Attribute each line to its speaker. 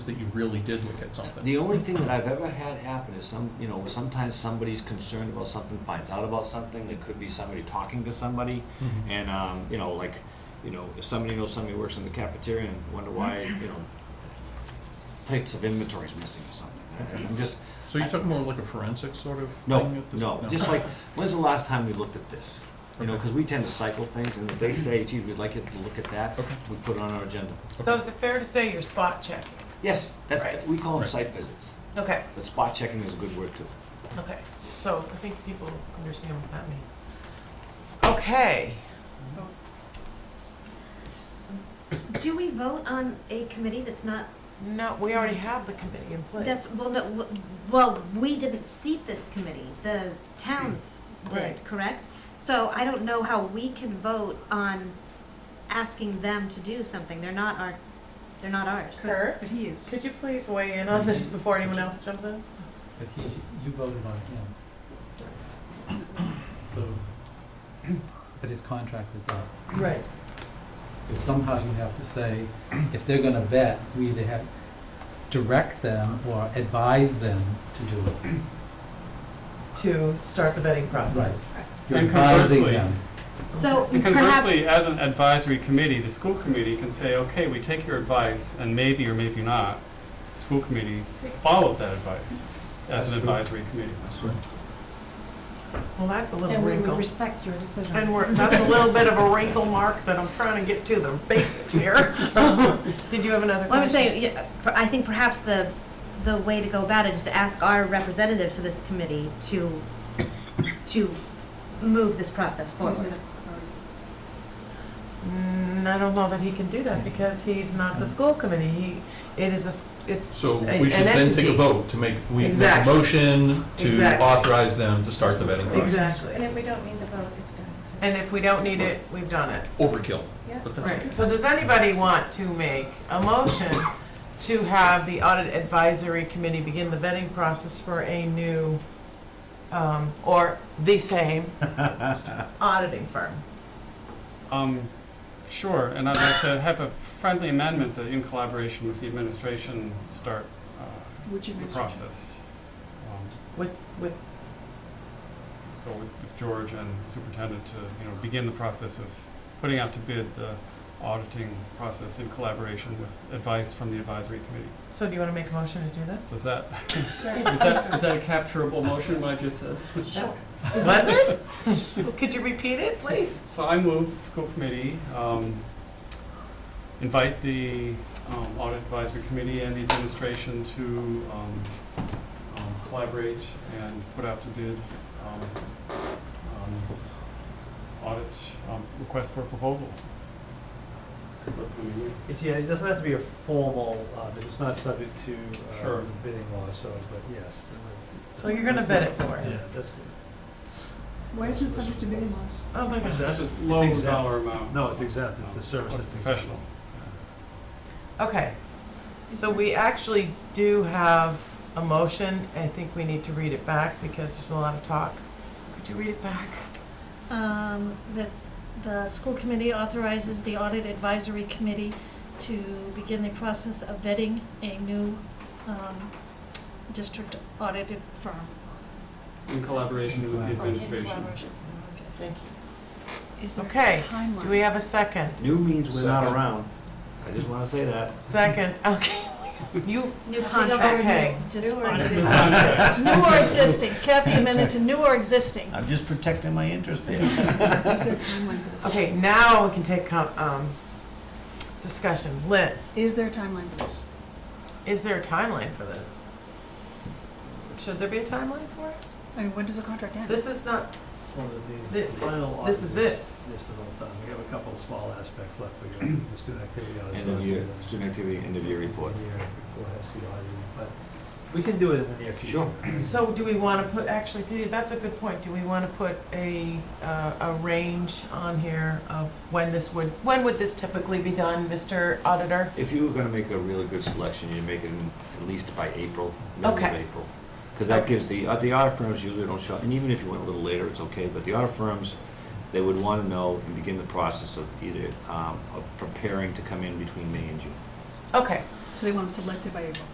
Speaker 1: that you really did look at something.
Speaker 2: The only thing that I've ever had happen is some, you know, sometimes somebody's concerned about something, finds out about something. There could be somebody talking to somebody,
Speaker 1: Mhm.
Speaker 2: and um, you know, like, you know, if somebody knows somebody works in the cafeteria and wonder why,
Speaker 1: Mm-hmm.
Speaker 2: you know, plates of inventory is missing or something. I- I'm just
Speaker 1: So you're talking more like a forensic sort of
Speaker 2: no,
Speaker 1: thing at this?
Speaker 2: no. Just like, when's the last time we looked at this? You know,
Speaker 1: Okay. Mm-hmm.
Speaker 2: because we tend to cycle things, and if they say, "Gee, we'd like you to look at that,"
Speaker 1: Okay.
Speaker 2: we put it on our agenda.
Speaker 1: Okay.
Speaker 3: So is it fair to say you're spot checking?
Speaker 2: Yes, that's
Speaker 3: Right.
Speaker 2: we call them
Speaker 1: Right.
Speaker 2: site visits,
Speaker 3: Okay,
Speaker 2: but spot checking is a good word too.
Speaker 3: okay. So I think people understand what that means. Okay.
Speaker 4: Do we vote on a committee that's not,
Speaker 3: No, we already have the committee in place.
Speaker 4: that's, well, no, w- well, we didn't seat this committee, the towns
Speaker 5: Mm.
Speaker 4: did,
Speaker 3: Right.
Speaker 4: correct? So I don't know how we can vote on asking them to do something, they're not our, they're not ours.
Speaker 3: Sir,
Speaker 5: But he is.
Speaker 3: could you please weigh in on this before anyone else jumps in?
Speaker 6: But he, you voted on him. So, but his contract is up.
Speaker 3: Right.
Speaker 6: So somehow you have to say, if they're gonna vet, you either have, direct them or advise them to do it.
Speaker 3: To start the vetting process.
Speaker 6: You're
Speaker 7: And
Speaker 6: advising
Speaker 7: conversely-
Speaker 6: them.
Speaker 4: So
Speaker 7: And
Speaker 4: perhaps,
Speaker 7: conversely, as an advisory committee, the school committee can say, okay, we take your advice, and maybe or maybe not, the school committee follows that advice as an advisory committee.
Speaker 3: Well, that's a little
Speaker 5: And we would
Speaker 3: wrinkle.
Speaker 5: respect your decision.
Speaker 3: And we're, that's a little bit of a wrinkle mark that I'm trying to get to the basics here. Did you have another question?
Speaker 4: well, I'm saying, yeah, per- I think perhaps the, the way to go about it is to ask our representatives to this committee to, to move this process forward.
Speaker 3: Mm, I don't know that he can do that because he's not the school committee. He, it is a, s- it's
Speaker 1: So
Speaker 3: a-
Speaker 1: we should
Speaker 3: an
Speaker 1: then take a
Speaker 3: entity.
Speaker 1: vote to make, we make a
Speaker 3: Exactly.
Speaker 1: motion to
Speaker 3: Exactly.
Speaker 1: authorize them to start the vetting process.
Speaker 5: And
Speaker 3: Exactly.
Speaker 5: if we don't need the vote, it's done. so-
Speaker 3: And if we don't need it, we've done it.
Speaker 1: Overkill,
Speaker 5: Yeah.
Speaker 1: but that's okay.
Speaker 3: Right. So does anybody want to make a motion to have the audit advisory committee begin the vetting process for a new, um, or the same auditing firm?
Speaker 7: Um, sure, and I'd like to have a friendly amendment that in collaboration with the administration, start uh,
Speaker 5: Which
Speaker 7: the
Speaker 5: administration?
Speaker 7: process. Um,
Speaker 3: With, with,
Speaker 7: So with with George and superintendent to, you know, begin the process of putting out to bid the auditing process in collaboration with advice from the advisory committee.
Speaker 3: so do you want to make a motion to do that?
Speaker 7: So is that,
Speaker 5: Yes.
Speaker 7: is that, is that a capturable motion, what I just said?
Speaker 3: Sure. Was it? Could you repeat it, please?
Speaker 7: So I move that the school committee um, invite the um, audit advisory committee and the administration to um, um, collaborate and put out to bid um, um, audit um, request for proposals.
Speaker 8: It's, yeah, it doesn't have to be a formal, um, it's not subject to,
Speaker 7: Sure.
Speaker 8: uh, bidding law, so, but yes.
Speaker 3: So you're gonna vet it for us?
Speaker 8: Yeah, that's good.
Speaker 5: Why isn't it subject to bidding laws?
Speaker 3: Oh, my gosh.
Speaker 8: So
Speaker 7: That's a
Speaker 8: it's
Speaker 7: low
Speaker 8: exempt.
Speaker 7: dollar amount.
Speaker 8: No, it's exempt, it's a service
Speaker 7: It's
Speaker 8: that's exempt.
Speaker 7: professional.
Speaker 3: Okay, so we actually do have a motion. I think we need to read it back because there's a lot of talk. Could you read it back?
Speaker 5: Um, that the school committee authorizes the audit advisory committee to begin the process of vetting a new, um, district audited firm.
Speaker 7: In collaboration with the
Speaker 6: In
Speaker 7: administration.
Speaker 5: collaboration.
Speaker 3: Thank you.
Speaker 5: Is
Speaker 3: there a Okay, Do we have a second?
Speaker 2: New means we're not
Speaker 1: Second.
Speaker 2: around. I just want to say that.
Speaker 3: Second, okay. You,
Speaker 4: New
Speaker 3: Okay.
Speaker 4: contract.
Speaker 5: Just
Speaker 3: New or
Speaker 5: audit.
Speaker 7: Contract.
Speaker 5: New or existing, Kathy amended to new or existing.
Speaker 2: I'm just protecting my interest there.
Speaker 3: okay, now we can take, com- um, discussion. Lit,
Speaker 5: Is there a timeline for this?
Speaker 3: is there a timeline for this? Should there be a timeline for it?
Speaker 5: I mean, when does the contract end?
Speaker 3: This is not,
Speaker 8: One of the-
Speaker 3: thi-
Speaker 8: the final
Speaker 3: it's- this is
Speaker 8: audit
Speaker 3: it.
Speaker 8: Just about done, we have a couple of small aspects left to go, the student activity audit.
Speaker 2: End of year, student activity, end of year report.
Speaker 8: Year report has to be audited, but we can do it in the near future.
Speaker 2: Sure.
Speaker 3: So do we want to put, actually, do, that's a good point. Do we want to put a, uh, a range on here of when this would, when would this typically be done, Mr. Auditor?
Speaker 2: If you were gonna make a really good selection, you'd make it in- at least by April, middle of
Speaker 3: Okay.
Speaker 2: April. Because that gives the, uh, the audit firms usually don't show, and even if you went a little later, it's okay, but the audit firms, they would wanna know and begin the process of either, um, of preparing to come in between May and June.
Speaker 3: Okay,
Speaker 5: So they want them selected by April.